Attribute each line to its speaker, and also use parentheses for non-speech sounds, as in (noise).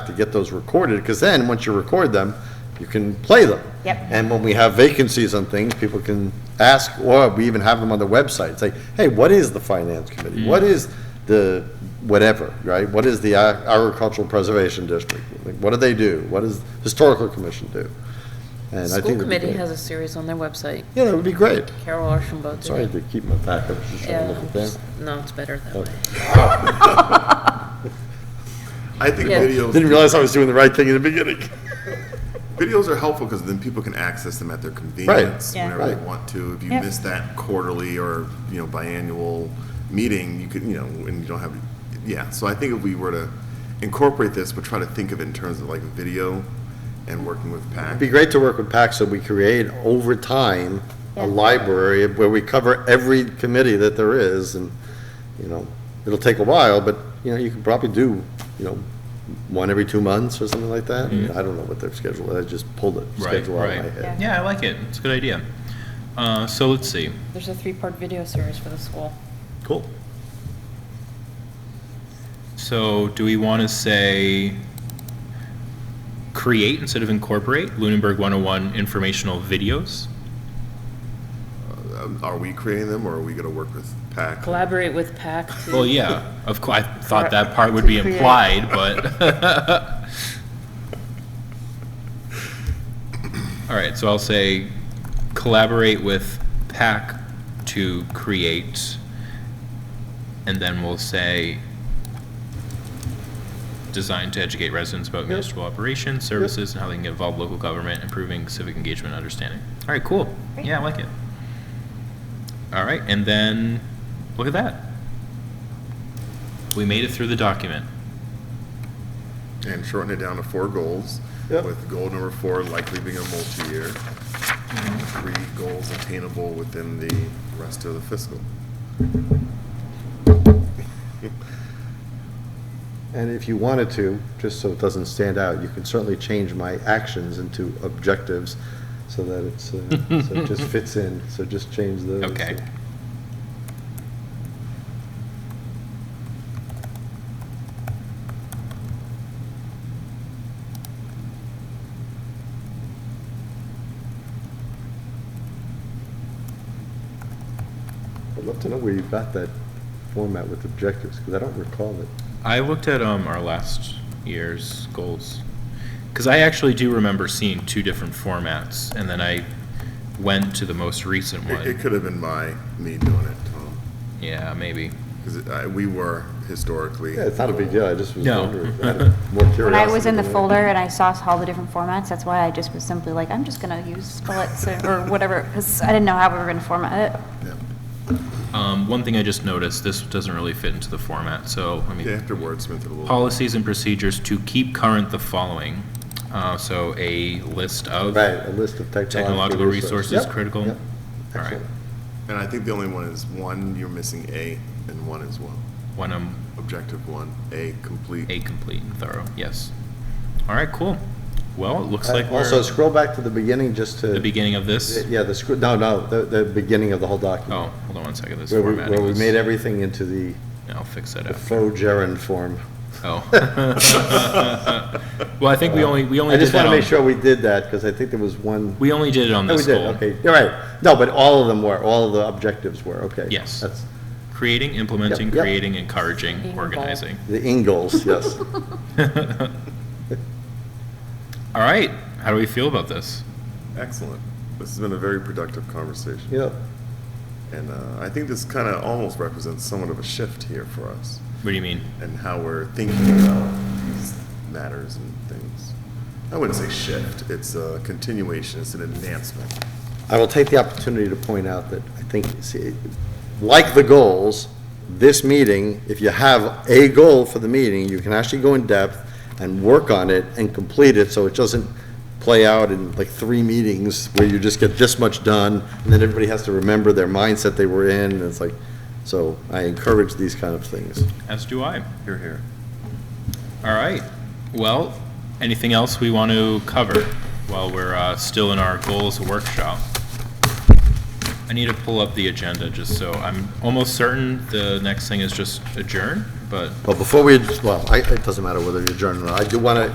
Speaker 1: to get those recorded, because then, once you record them, you can play them.
Speaker 2: Yep.
Speaker 1: And when we have vacancies on things, people can ask, or we even have them on the website, say, hey, what is the finance committee? What is the whatever, right? What is the Ag- agricultural preservation district? Like, What do they do? What does historical commission do? And I think
Speaker 3: School
Speaker 1: it'd be
Speaker 3: committee
Speaker 1: great.
Speaker 3: has a series on their website.
Speaker 1: Yeah, that would be great.
Speaker 3: Carol Archambault. did
Speaker 1: Sorry
Speaker 3: it.
Speaker 1: to keep my back, I was just trying to
Speaker 3: Yeah,
Speaker 1: look at
Speaker 3: just-
Speaker 1: them.
Speaker 3: no, it's better that
Speaker 1: Oh.
Speaker 3: way.
Speaker 4: I think
Speaker 3: Yeah.
Speaker 1: Didn't
Speaker 4: videos,
Speaker 1: realize I was doing the right thing in the beginning.
Speaker 4: videos are helpful because then people can access them at their convenience
Speaker 2: Yeah.
Speaker 4: whenever they
Speaker 1: Right.
Speaker 4: want to. If you
Speaker 2: Yep.
Speaker 4: miss that quarterly or, you know, biannual meeting, you could, you know, and you don't have, yeah. So I think if we were to incorporate this, but try to think of it in terms of like video and working with PAC.
Speaker 1: It'd be great to work with PAC so we create over time a library where we cover every committee that there is and, you know, it'll take a while, but, you know, you could probably do, you know, one every two months or something like that. I don't know what their schedule is, I just pulled it,
Speaker 5: Mm-hmm. Right,
Speaker 1: schedule out of my
Speaker 5: right.
Speaker 1: head.
Speaker 5: Yeah, I like it. It's a good idea. Uh, so let's see.
Speaker 3: There's a three-part video series for the school.
Speaker 5: Cool. So do we want to say create instead of incorporate Lunenburg 101 informational videos?
Speaker 4: Um, Are we creating them or are we going to work with PAC?
Speaker 3: Collaborate with PAC to.
Speaker 5: Well, yeah, of course, I thought that part would be
Speaker 2: To create.
Speaker 5: implied,
Speaker 2: (laughs)
Speaker 5: but. All right, so I'll say collaborate with PAC to create, and then we'll say designed to educate residents about municipal operations, services, and how they can get involved local government, improving civic engagement and understanding. All right, cool. Yeah, I like it. All right, and then, look at that. We made it through the document.
Speaker 4: And shorten it down to four goals,
Speaker 1: Yep.
Speaker 4: with goal number four likely being a multi-year. Three goals attainable within the rest of the fiscal.
Speaker 1: And if you wanted to, just so it doesn't stand out, you can certainly change my actions into objectives so that it's, uh, so it just fits in, so just change those.
Speaker 5: Okay.
Speaker 1: I'd love to know where you got that format with objectives, because I don't recall it.
Speaker 5: I looked at um, our last year's goals because I actually do remember seeing two different formats, and then I went to the most recent
Speaker 4: It, it
Speaker 5: one.
Speaker 4: could have been my, me doing it, Tom,
Speaker 5: (laughs) Yeah, maybe.
Speaker 4: because we were historically.
Speaker 1: Yeah, it's not a big deal, I just was
Speaker 5: No. (laughs)
Speaker 1: wondering, I had more curiosity.
Speaker 2: When I was in the
Speaker 1: than anything.
Speaker 2: folder and I saw all the different formats, that's why I just was simply like, I'm just gonna use bullets or- or whatever, because I didn't know how we were gonna format it.
Speaker 4: Yeah.
Speaker 5: Um, one thing I just noticed this doesn't really fit into the format, so I mean,
Speaker 4: Yeah, after wordsmith it a little.
Speaker 5: policies and procedures to keep current the following. Uh, so a list of
Speaker 1: Right, a list of technological.
Speaker 5: technological
Speaker 1: resources.
Speaker 5: resources
Speaker 1: Yep,
Speaker 5: critical.
Speaker 1: yep,
Speaker 5: All right,
Speaker 1: excellent.
Speaker 4: And I think the only one is one, you're missing A, and one as well.
Speaker 5: when I'm
Speaker 4: Objective one, A, complete.
Speaker 5: A complete and thorough, yes. All right, cool. Well, it looks
Speaker 1: Uh,
Speaker 5: like we're
Speaker 1: Also,
Speaker 5: at
Speaker 1: scroll back to the beginning just
Speaker 5: the
Speaker 1: to,
Speaker 5: beginning of this.
Speaker 1: yeah, the, scr- no, no, the, the beginning of the whole document.
Speaker 5: Oh, hold on one second, this
Speaker 1: Where we,
Speaker 5: formatting.
Speaker 1: where we
Speaker 5: is-
Speaker 1: made everything into the
Speaker 5: I'll fix that
Speaker 1: the (laughs)
Speaker 5: up.
Speaker 1: faux gerund form.
Speaker 5: Oh. (laughs)
Speaker 4: (laughs)
Speaker 5: Well, I think we only, we only
Speaker 1: I
Speaker 5: did
Speaker 1: just want
Speaker 5: that
Speaker 1: to make
Speaker 5: on,
Speaker 1: sure we did that, because I think there was one,
Speaker 5: we only did it on
Speaker 1: oh, we
Speaker 5: this
Speaker 1: did,
Speaker 5: goal.
Speaker 1: okay, you're right. No, but all of them were, all of the objectives were, okay.
Speaker 5: Yes.
Speaker 1: That's
Speaker 5: Creating, implementing,
Speaker 1: Yep, yep.
Speaker 5: creating, encouraging,
Speaker 3: Being
Speaker 5: organizing.
Speaker 1: the Ingalls,
Speaker 5: (laughs)
Speaker 1: yes.
Speaker 5: All right, how do we feel about this?
Speaker 4: Excellent. This has been a very productive conversation.
Speaker 1: Yep,
Speaker 4: And uh, I think this kind of almost represents somewhat of a shift here for us
Speaker 5: What do you mean?
Speaker 4: and how we're thinking about these matters and things. I wouldn't say shift, it's a continuation, it's an advancement.
Speaker 1: I will take the opportunity to point out that I think, see, like the goals, this meeting, if you have a goal for the meeting, you can actually go in depth and work on it and complete it, so it doesn't play out in like three meetings where you just get this much done, and then everybody has to remember their mindset they were in, and it's like, so I encourage these kind of things.
Speaker 5: As do I.
Speaker 4: Here, here.
Speaker 5: All right. Well, anything else we want to cover while we're uh, still in our goals workshop? I need to pull up the agenda just so I'm almost certain the next thing is just adjourn, but
Speaker 1: But before we, well, I, it doesn't matter whether you adjourn or not, I do want to